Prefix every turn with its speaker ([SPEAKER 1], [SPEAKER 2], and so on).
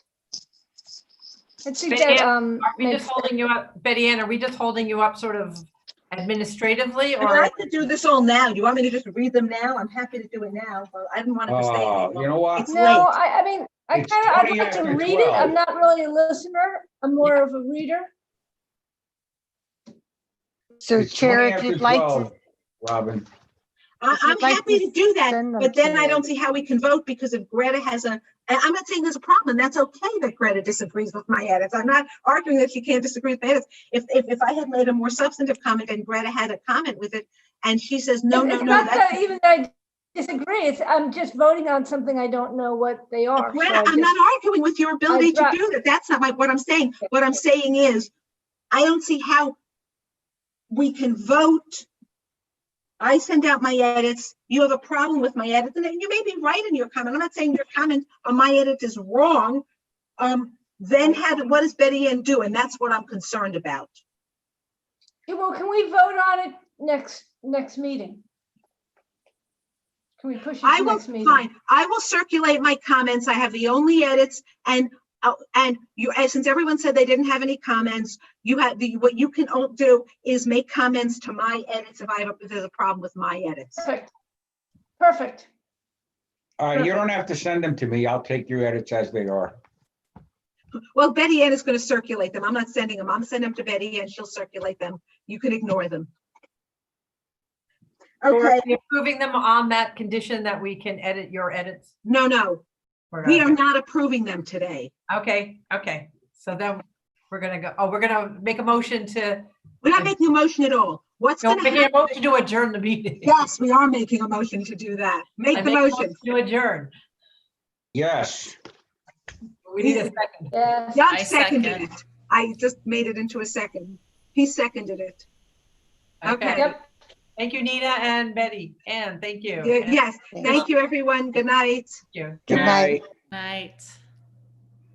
[SPEAKER 1] It suggests,
[SPEAKER 2] Betty,
[SPEAKER 1] um,
[SPEAKER 2] Are we
[SPEAKER 1] makes-
[SPEAKER 2] just holding you up, Betty Ann, are we just holding you up sort of administratively
[SPEAKER 3] I'd
[SPEAKER 2] or?
[SPEAKER 3] like to do this all now. You want me to just read them now? I'm happy to do it now, but I didn't want to stay.
[SPEAKER 4] Ah,
[SPEAKER 3] any
[SPEAKER 4] you
[SPEAKER 3] longer.
[SPEAKER 4] know what?
[SPEAKER 3] It's
[SPEAKER 1] no,
[SPEAKER 3] late.
[SPEAKER 1] I, I mean, I
[SPEAKER 4] It's
[SPEAKER 1] kind of, I'd
[SPEAKER 4] 20
[SPEAKER 1] like to
[SPEAKER 4] after
[SPEAKER 1] read it.
[SPEAKER 4] 12.
[SPEAKER 1] I'm not really a listener. I'm more of a reader.
[SPEAKER 5] So
[SPEAKER 4] It's 20
[SPEAKER 5] Chair, if
[SPEAKER 4] after
[SPEAKER 5] you'd like to
[SPEAKER 4] 12, Robin,
[SPEAKER 3] I,
[SPEAKER 5] if you'd
[SPEAKER 3] I'm
[SPEAKER 5] like
[SPEAKER 3] happy
[SPEAKER 5] to
[SPEAKER 3] to do that,
[SPEAKER 5] send them
[SPEAKER 3] but then
[SPEAKER 5] to
[SPEAKER 3] I don't
[SPEAKER 5] me.
[SPEAKER 3] see how we can vote because if Greta has a, I- I'm not saying there's a problem. That's okay that Greta disagrees with my edits. I'm not arguing that she can't disagree with my edits. If, if, if I had made a more substantive comment and Greta had a comment with it and she says, no,
[SPEAKER 1] It's-
[SPEAKER 3] no,
[SPEAKER 1] it's
[SPEAKER 3] no,
[SPEAKER 1] not that
[SPEAKER 3] that's.
[SPEAKER 1] Even that I disagree, it's, I'm just voting on something I don't know what they are. so I
[SPEAKER 3] Greta, I'm
[SPEAKER 1] just-
[SPEAKER 3] not arguing with your ability to
[SPEAKER 1] dra-
[SPEAKER 3] do that. That's not my, what I'm saying. What I'm saying is, I don't see how we can vote. I send out my edits. You have a problem with my edits, and then you may be right in your comment. I'm not saying your comment on my edit is wrong. Um, then how, do- what does Betty Ann do? And that's what I'm concerned about.
[SPEAKER 1] Okay, Well, can we vote on it next, next meeting? Can we push it
[SPEAKER 3] I
[SPEAKER 1] to
[SPEAKER 3] will,
[SPEAKER 1] next meeting?
[SPEAKER 3] fine, I will circulate my comments. I have the only edits and, uh, and you, and since everyone said they didn't have any comments, you have, the what you can all do is make comments to my edits if I have, a- if there's a problem with my edits.
[SPEAKER 1] Perfect. Perfect.
[SPEAKER 4] uh, you don't have to send them to me. I'll take your edits as they are.
[SPEAKER 3] Well, Betty Ann is going to circulate them. I'm not sending them. I'm sending them to Betty Ann. She'll circulate them. You can ignore them.
[SPEAKER 2] or are
[SPEAKER 3] Okay,
[SPEAKER 2] we Approving them on that condition that we can edit your edits?
[SPEAKER 3] no, no,
[SPEAKER 2] We're
[SPEAKER 3] we
[SPEAKER 2] not-
[SPEAKER 3] are not approving them today.
[SPEAKER 2] Okay, okay, so then we're gonna go, oh, we're gonna make a motion to,
[SPEAKER 3] We're not making a motion at all. What's
[SPEAKER 2] no,
[SPEAKER 3] going
[SPEAKER 2] we're
[SPEAKER 3] to
[SPEAKER 2] making a
[SPEAKER 3] happen?
[SPEAKER 2] motion to adjourn the meeting.
[SPEAKER 3] Yes, we are making a motion to do
[SPEAKER 2] I
[SPEAKER 3] that. Make the
[SPEAKER 2] make a
[SPEAKER 3] motion.
[SPEAKER 2] To adjourn.
[SPEAKER 4] Yes,
[SPEAKER 2] We need a second.
[SPEAKER 1] Yes.
[SPEAKER 3] Doug
[SPEAKER 6] I
[SPEAKER 3] seconded it.
[SPEAKER 6] second.
[SPEAKER 3] I just made it into a second. He seconded it. Okay.
[SPEAKER 2] Okay,
[SPEAKER 1] Yep.
[SPEAKER 2] thank you, Nina and Betty. Ann, thank you.
[SPEAKER 3] Ye- Yes,
[SPEAKER 5] Thank
[SPEAKER 3] thank you, everyone. Good night.
[SPEAKER 2] Thank you.
[SPEAKER 5] Good
[SPEAKER 4] Good night.
[SPEAKER 5] night.
[SPEAKER 6] Night.